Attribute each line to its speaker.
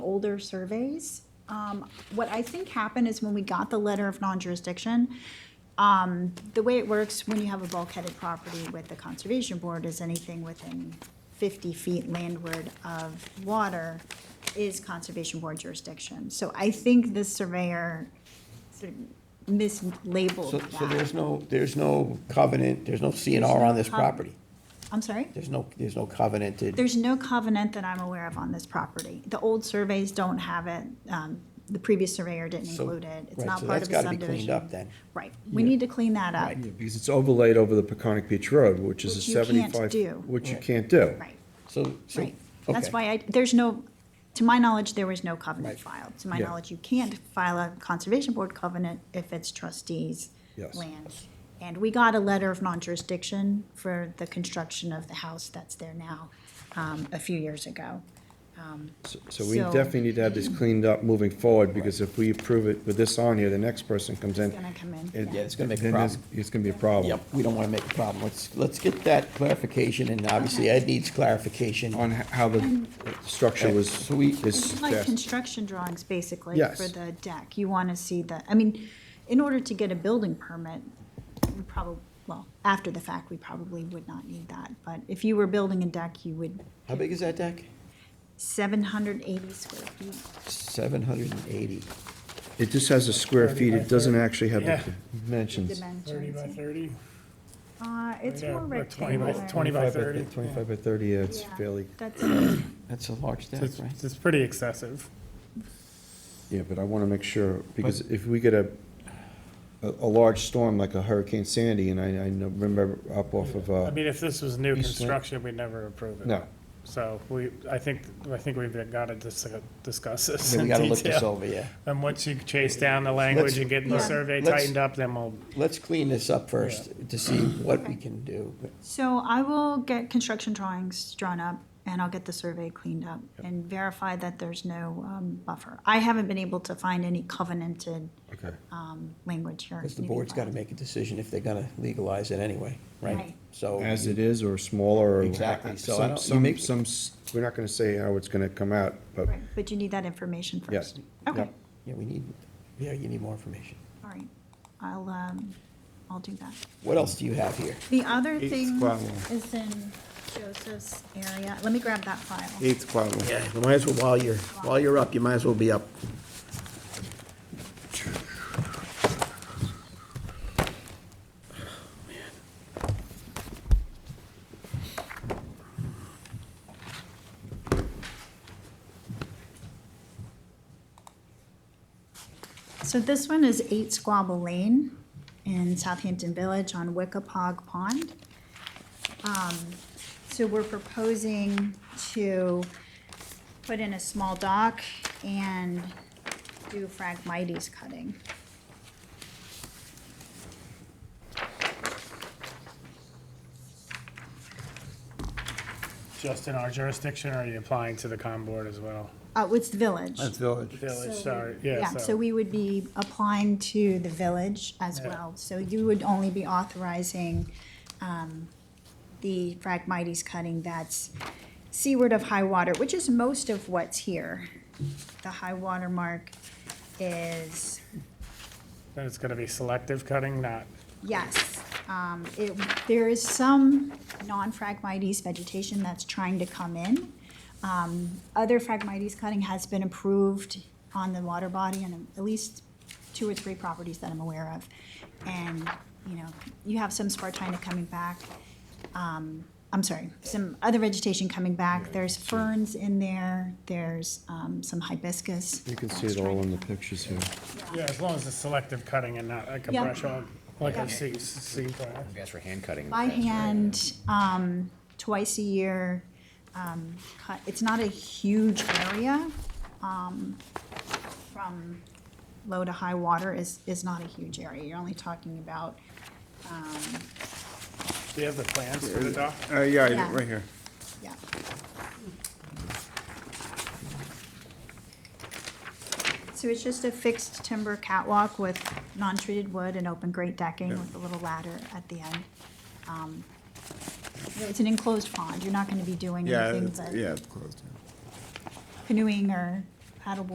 Speaker 1: older surveys. Um, what I think happened is when we got the letter of non-jurisdiction, um, the way it works when you have a bulkheaded property with the conservation board is anything within fifty feet landward of water is conservation board jurisdiction. So I think this surveyor sort of mislabeled
Speaker 2: So,
Speaker 1: that.
Speaker 2: so there's no, there's no covenant, there's no
Speaker 1: There's
Speaker 2: CNR on
Speaker 1: no
Speaker 2: this
Speaker 1: cov-
Speaker 2: property?
Speaker 1: I'm sorry?
Speaker 2: There's no, there's no covenanted,
Speaker 1: There's no covenant that I'm aware of on this property. The old surveys don't have it. Um, The previous surveyor didn't
Speaker 2: So-
Speaker 1: include it. It's
Speaker 2: right,
Speaker 1: not
Speaker 2: so
Speaker 1: part
Speaker 2: that's
Speaker 1: of the subdivision.
Speaker 2: gotta be cleaned up then.
Speaker 1: Right. We need to clean that up.
Speaker 3: Yeah, Because it's overlaid over the Peconic Beach Road, which is a
Speaker 1: Which you can't
Speaker 3: 75.
Speaker 1: do.
Speaker 3: Which you
Speaker 2: Right.
Speaker 3: can't do.
Speaker 1: Right,
Speaker 2: so, so,
Speaker 1: right. That's
Speaker 2: okay.
Speaker 1: why I, there's no, to my knowledge, there was no covenant filed. To my
Speaker 3: Yeah.
Speaker 1: knowledge, you can't file a conservation board covenant if it's trustees'
Speaker 3: Yes.
Speaker 1: land. And we got a letter of non-jurisdiction for the construction of the house that's there now, um, a few years ago.
Speaker 3: So- So we
Speaker 1: So-
Speaker 3: definitely need to have this cleaned up moving forward, because if we approve it with this on here, the next person comes in.
Speaker 1: Gonna come in,
Speaker 3: and-
Speaker 1: yeah.
Speaker 2: Yeah, it's gonna make a
Speaker 3: then there's-
Speaker 2: problem.
Speaker 3: It's gonna be a problem.
Speaker 2: Yep, we don't wanna make a problem. Let's, let's get that clarification, and obviously Ed needs clarification.
Speaker 3: On h- how the structure
Speaker 2: Okay,
Speaker 3: was,
Speaker 2: so we-
Speaker 3: is
Speaker 1: It's like
Speaker 3: best.
Speaker 1: construction drawings, basically,
Speaker 3: Yes.
Speaker 1: for the deck. You want to see the, I mean, in order to get a building permit, we probably, well, after the fact, we probably would not need that. But if you were building a deck, you would,
Speaker 2: How big is that deck?
Speaker 1: 780 square feet.
Speaker 2: Seven hundred and eighty.
Speaker 3: It just has a square feet, it doesn't actually have the dimensions.
Speaker 4: Thirty by
Speaker 1: dimensions.
Speaker 4: thirty?
Speaker 1: Uh, it's
Speaker 4: Yeah,
Speaker 1: more
Speaker 4: or 20 by-
Speaker 1: rectangular.
Speaker 4: 20 by 30. yeah.
Speaker 3: 25 by 30, yeah, it's
Speaker 1: Yeah,
Speaker 3: fairly,
Speaker 1: That's,
Speaker 2: That's a large deck,
Speaker 4: It's,
Speaker 2: right?
Speaker 4: it's pretty excessive.
Speaker 3: yeah, but I wanna make sure, because if we get a, a, a large storm like a Hurricane Sandy, and I, I know- remember up off of,
Speaker 4: I
Speaker 3: uh,
Speaker 4: mean, if this was new
Speaker 3: East Lake.
Speaker 4: construction, we'd never approve it.
Speaker 3: no,
Speaker 4: So we, I think, I think we've got to discuss this
Speaker 2: Yeah,
Speaker 4: in
Speaker 2: we gotta look this
Speaker 4: detail.
Speaker 2: over, yeah.
Speaker 4: And once you chase down the language and get the
Speaker 1: let's-
Speaker 4: survey
Speaker 2: let's-
Speaker 4: tightened up, then we'll,
Speaker 2: Let's clean this up first to see what we can do.
Speaker 1: so I will get construction drawings drawn up and I'll get the survey cleaned up and verify that there's no um, buffer. I haven't been able to find any covenanted
Speaker 3: okay.
Speaker 1: um, language here.
Speaker 2: Because the
Speaker 1: Need to
Speaker 2: board's
Speaker 1: file.
Speaker 2: gotta make a decision if they're gonna legalize it anyway, right?
Speaker 1: Right.
Speaker 2: So.
Speaker 3: As it is, or smaller, or.
Speaker 2: Exactly, so I
Speaker 3: some-
Speaker 2: don't- you
Speaker 3: Some,
Speaker 2: make-
Speaker 3: some, s- we're not gonna say how it's gonna come out, but
Speaker 1: Right, but you need that information first.
Speaker 3: Yes.
Speaker 1: Okay,
Speaker 3: Yep.
Speaker 2: Yeah, we need, yeah, you need more information.
Speaker 1: all right. I'll, um, I'll do that.
Speaker 2: What else do you have here?
Speaker 1: The other
Speaker 5: Eighth
Speaker 1: thing
Speaker 5: problem.
Speaker 1: is in Joseph's area. Let me grab that file.
Speaker 5: Eighth problem.
Speaker 2: Yeah, you might as well, while you're, while you're up, you might as well be up.
Speaker 1: So this one is eight Squabble Lane in Southampton Village on Wickapog Pond. Um, So we're proposing to put in a small dock and do Phragmites cutting.
Speaker 4: just in our jurisdiction, or are you applying to the con board as well?
Speaker 1: Uh, it's the village.
Speaker 5: village.
Speaker 4: Village,
Speaker 1: So-
Speaker 4: sorry, uh, yeah, so.
Speaker 1: so we would be applying to the village as
Speaker 4: Yeah.
Speaker 1: well. So you would only be authorizing um, the Phragmites cutting that's seaward of high water, which is most of what's here. The high water mark is,
Speaker 4: Then it's going to be selective cutting, not,
Speaker 1: yes. um, it- There is some non-Phragmites vegetation that's trying to come in. Um, Other Phragmites cutting has been approved on the water body and at least two or three properties that I'm aware of. And, you know, you have some spartina coming back. Um, I'm sorry, some other vegetation coming back. There's ferns in there, there's um, some hibiscus.
Speaker 3: you can see
Speaker 1: that's
Speaker 3: it all
Speaker 1: trying
Speaker 3: in
Speaker 1: to
Speaker 3: the
Speaker 1: come.
Speaker 3: pictures here.
Speaker 4: yeah, as long as it's selective cutting and not like a
Speaker 1: Yeah.
Speaker 4: brush on, like
Speaker 1: Yeah.
Speaker 4: a C, C plant.
Speaker 6: That's for hand cutting.
Speaker 1: by hand, um, twice a year. Um, cut, it's not a huge area, um, from low to high water is, is not a huge area. You're only talking about,
Speaker 4: Do you have the plans for the dock?
Speaker 5: Uh, yeah, I do,
Speaker 1: Yeah.
Speaker 5: right here.
Speaker 1: yeah. So it's just a fixed timber catwalk with non-treated wood and open grate decking with a little ladder at the end. Um, It's an enclosed pond. You're not gonna be doing
Speaker 5: Yeah,
Speaker 1: anything
Speaker 5: it's-
Speaker 1: but
Speaker 5: yeah, it's closed. yeah.
Speaker 1: canoeing or paddleboard